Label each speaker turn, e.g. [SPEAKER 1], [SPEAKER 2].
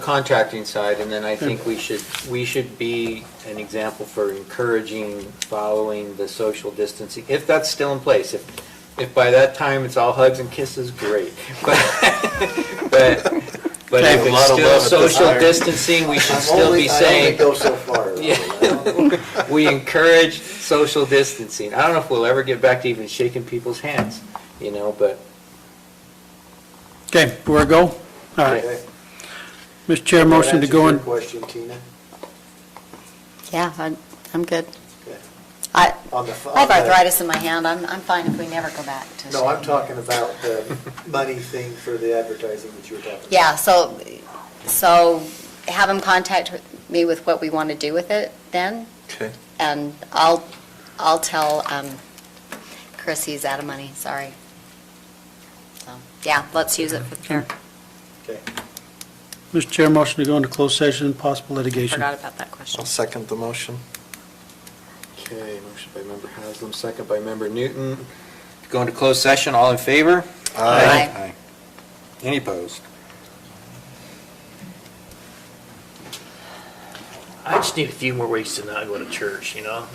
[SPEAKER 1] contracting side, and then I think we should, we should be an example for encouraging, following the social distancing, if that's still in place. If, if by that time it's all hugs and kisses, great. But, but, but
[SPEAKER 2] Okay.
[SPEAKER 1] if
[SPEAKER 2] A lot
[SPEAKER 1] it's
[SPEAKER 2] of
[SPEAKER 1] still
[SPEAKER 2] love at this
[SPEAKER 1] social
[SPEAKER 2] fire.
[SPEAKER 1] distancing, we should still be saying,
[SPEAKER 3] I only go so far.
[SPEAKER 1] Yeah. we encourage social distancing. I don't know if we'll ever get back to even shaking people's hands, you know, but.
[SPEAKER 2] Okay, we're a go? All right.
[SPEAKER 3] Okay.
[SPEAKER 2] Mr. Chair, motion to go in,
[SPEAKER 3] That answers your question, Tina.
[SPEAKER 4] Yeah, I'm- I'm good.
[SPEAKER 3] Okay.
[SPEAKER 4] I
[SPEAKER 3] On the f-
[SPEAKER 4] I have
[SPEAKER 3] on the-
[SPEAKER 4] arthritis in my hand, I'm, I'm fine if we never go back to.
[SPEAKER 3] No, I'm talking about the money thing for the advertising that you were talking about.
[SPEAKER 4] Yeah, so, so have them contact me with what we want to do with it then,
[SPEAKER 5] Okay.
[SPEAKER 4] and I'll, I'll tell um, Chris he's out of money, sorry. So, Yeah, let's use it for the fair.
[SPEAKER 3] Okay.
[SPEAKER 2] Mr. Chair, motion to go into closed session, possible litigation.
[SPEAKER 4] Forgot about that question.
[SPEAKER 5] I'll second the motion.
[SPEAKER 1] Okay, motion by member Haslam, second by member Newton. Going to closed session, all in favor?
[SPEAKER 4] Aye.
[SPEAKER 1] Any opposed?
[SPEAKER 6] I just need a few more weeks to not go to church, you know?